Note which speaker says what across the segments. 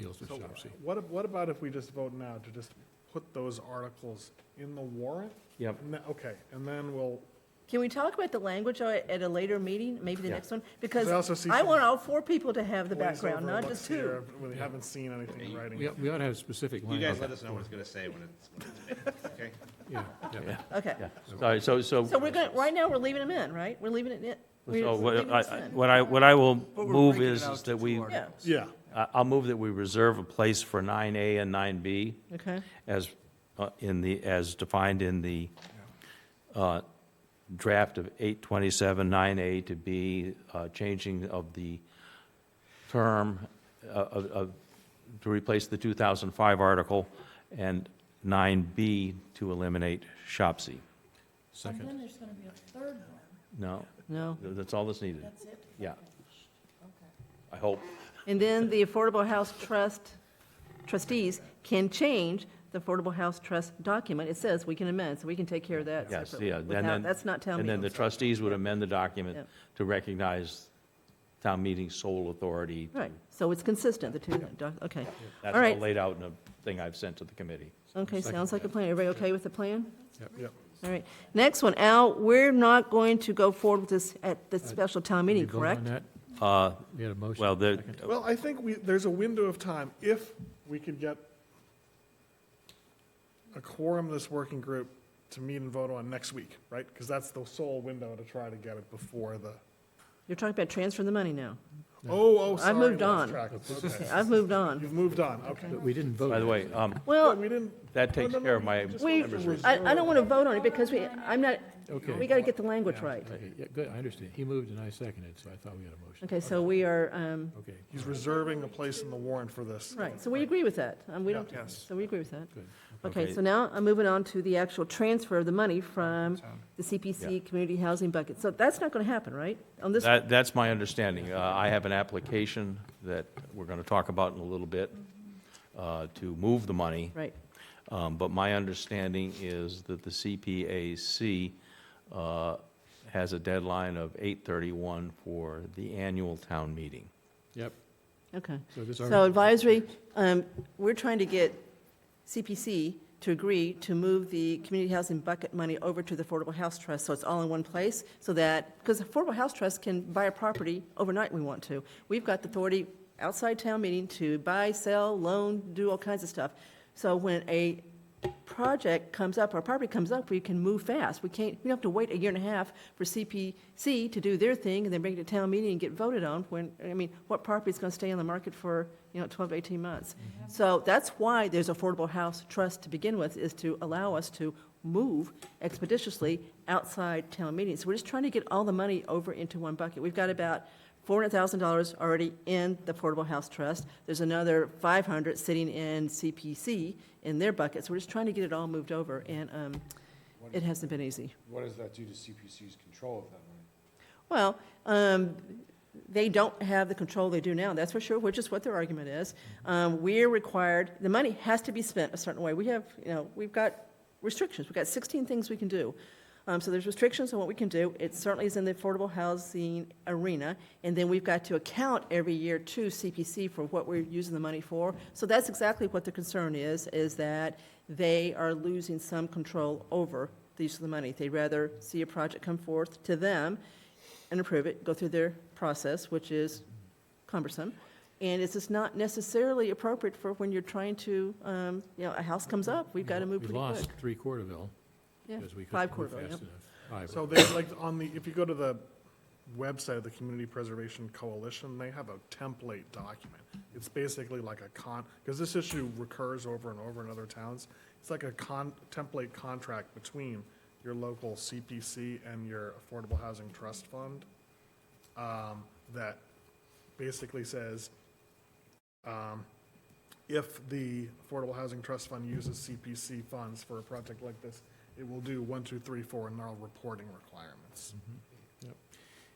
Speaker 1: So
Speaker 2: Controversy.
Speaker 1: what, ab- what about if we just vote now to just put those articles in the warrant?
Speaker 2: Yep.
Speaker 1: And then- Okay, and then we'll,
Speaker 3: Can we talk about the language at at a later meeting, maybe the
Speaker 2: Yeah.
Speaker 3: next one?
Speaker 1: I also
Speaker 3: Because
Speaker 1: see
Speaker 3: I
Speaker 1: some
Speaker 3: want all four people to have the
Speaker 1: glaze over
Speaker 3: background, not
Speaker 1: what's
Speaker 3: just two.
Speaker 1: here when We haven't seen anything in writing.
Speaker 2: We, we ought to have specific
Speaker 4: You
Speaker 2: language.
Speaker 4: guys let us know what it's gonna say when it's, okay?
Speaker 2: Yeah, yeah.
Speaker 3: Okay.
Speaker 5: Yeah, sorry, so, so,
Speaker 3: So we're going, right now, we're leaving them in, right? We're leaving it in. we're
Speaker 5: so what
Speaker 3: leaving
Speaker 5: I,
Speaker 3: this
Speaker 5: I-
Speaker 3: in.
Speaker 5: what I, what I will
Speaker 6: But we're
Speaker 5: move
Speaker 6: breaking it
Speaker 5: is,
Speaker 6: out
Speaker 5: is
Speaker 6: to
Speaker 5: that
Speaker 6: two
Speaker 5: we,
Speaker 6: articles.
Speaker 3: Yeah,
Speaker 1: Yeah,
Speaker 5: I- I'll move that we reserve a place for nine A and nine B
Speaker 3: okay.
Speaker 5: as, uh, in the, as defined in the, uh, draft of eight twenty-seven, nine A to be, uh, changing of the term uh, of, of, to replace the two thousand five article, and nine B to eliminate Shopsy.
Speaker 2: Second.
Speaker 7: Then there's gonna be a third one,
Speaker 5: No,
Speaker 3: No.
Speaker 5: that's all that's needed.
Speaker 7: that's it?
Speaker 5: Yeah. I hope.
Speaker 3: And then the Affordable House Trust trustees can change the Affordable House Trust document. It says we can amend, so we can take care of that
Speaker 5: Yes,
Speaker 3: separately.
Speaker 5: yeah. and
Speaker 3: without-
Speaker 5: then-
Speaker 3: That's not town
Speaker 5: And then the
Speaker 3: meeting.
Speaker 5: trustees would amend the document
Speaker 3: Yep.
Speaker 5: to recognize town meeting's sole authority. to-
Speaker 3: Right, so it's consistent, the two, doc- okay. All
Speaker 5: That's all
Speaker 3: right,
Speaker 5: laid out in a thing I've sent to the committee.
Speaker 3: okay, sounds like a plan. Everybody okay with the plan?
Speaker 1: yeah.
Speaker 3: All right, next one, Al, we're not going to go forward with this at the special town
Speaker 2: Did we
Speaker 3: meeting,
Speaker 2: vote on
Speaker 3: correct?
Speaker 2: that?
Speaker 5: Uh,
Speaker 2: We had a motion.
Speaker 5: Well, the,
Speaker 1: Well, I think we, there's a window of time, if we could get a quorum of this working group to meet and vote on next week, right? Because that's the sole window to try to get it before the,
Speaker 3: You're talking about transferring the money now.
Speaker 1: oh, oh,
Speaker 3: I
Speaker 1: sorry.
Speaker 3: moved
Speaker 1: lost
Speaker 3: on.
Speaker 1: track. Okay.
Speaker 3: I've moved on.
Speaker 1: You've moved on, okay.
Speaker 2: But we didn't vote.
Speaker 5: by the way, um,
Speaker 1: Yeah,
Speaker 3: Well,
Speaker 1: We didn't,
Speaker 5: that takes
Speaker 1: no, no,
Speaker 5: care of
Speaker 1: we
Speaker 5: my
Speaker 1: just-
Speaker 3: we,
Speaker 5: members'
Speaker 3: I, I don't want to vote on it because we, I'm not, we
Speaker 2: Okay,
Speaker 3: got to get the language right.
Speaker 2: okay, yeah, good, I understand. He moved and I seconded, so I thought we had a motion.
Speaker 3: Okay, so we are, um,
Speaker 2: Okay,
Speaker 1: he's reserving a place in the warrant for this.
Speaker 3: right, so we agree with that. Um, we don't,
Speaker 1: Yeah, yes.
Speaker 3: so we agree with that.
Speaker 2: good.
Speaker 3: Okay,
Speaker 5: Okay.
Speaker 3: so now I'm moving on to the actual transfer of the money from the CPC Community Housing Bucket. So that's not going to happen, right? On this,
Speaker 5: That, that's my understanding. Uh, I have an application that we're going to talk about in a little bit uh, to move the money.
Speaker 3: right,
Speaker 5: Um, But my understanding is that the CPAC uh, has a deadline of 8:31 for the annual town meeting.
Speaker 2: Yep,
Speaker 3: okay.
Speaker 2: so this.
Speaker 3: So advisory, um, we're trying to get CPC to agree to move the community housing bucket money over to the Affordable House Trust, so it's all in one place, so that, because the Affordable House Trust can buy a property overnight we want to. We've got the authority outside town meeting to buy, sell, loan, do all kinds of stuff. So when a project comes up, or property comes up, we can move fast. We can't, we don't have to wait a year and a half for CPC to do their thing and then bring it to town meeting and get voted on when, I mean, what property is going to stay on the market for, you know, 12 to 18 months? So that's why there's Affordable House Trust to begin with, is to allow us to move expeditiously outside town meetings. So we're just trying to get all the money over into one bucket. We've got about $400,000 already in the Affordable House Trust. There's another 500 sitting in CPC in their bucket. So we're just trying to get it all moved over, and um, it hasn't been easy.
Speaker 8: What does that do to CPC's control of that money?
Speaker 3: Well, um, they don't have the control they do now, that's for sure, which is what their argument is. Um, We're required, the money has to be spent a certain way. We have, you know, we've got restrictions, we've got 16 things we can do. Um, So there's restrictions on what we can do. It certainly is in the affordable housing arena. And then we've got to account every year to CPC for what we're using the money for. So that's exactly what the concern is, is that they are losing some control over the use of the money. They'd rather see a project come forth to them and approve it, go through their process, which is cumbersome. And it's just not necessarily appropriate for when you're trying to, um, you know, a house comes up, we've got to move
Speaker 2: We
Speaker 3: pretty quick.
Speaker 2: lost three Quarterville
Speaker 3: Yeah,
Speaker 2: because we
Speaker 3: Five
Speaker 2: couldn't move
Speaker 3: Corville,
Speaker 2: fast
Speaker 3: yep.
Speaker 2: enough. Five.
Speaker 1: So they, like, on the, if you go to the website of the Community Preservation Coalition, they have a template document. It's basically like a con, because this issue recurs over and over in other towns. It's like a con, template contract between your local CPC and your Affordable Housing Trust Fund um, that basically says, um, if the Affordable Housing Trust Fund uses CPC funds for a project like this, it will do one, two, three, four, and there are reporting requirements.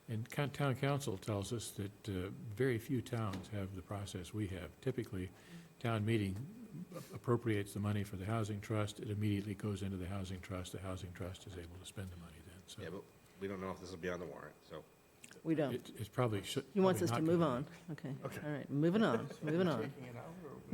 Speaker 2: And coun- town council tells us that uh, very few towns have the process we have. Typically, town meeting appropriates the money for the housing trust, it immediately goes into the housing trust, the housing trust is able to spend the money
Speaker 4: Yeah,
Speaker 2: then,
Speaker 4: but we don't know if this will be on the warrant, so.
Speaker 3: We
Speaker 2: so
Speaker 3: don't.
Speaker 2: it- it's probably should.
Speaker 3: He wants us
Speaker 2: probably
Speaker 3: to
Speaker 2: not
Speaker 3: move
Speaker 2: gonna be.
Speaker 3: on. Okay, all right, moving on, moving on.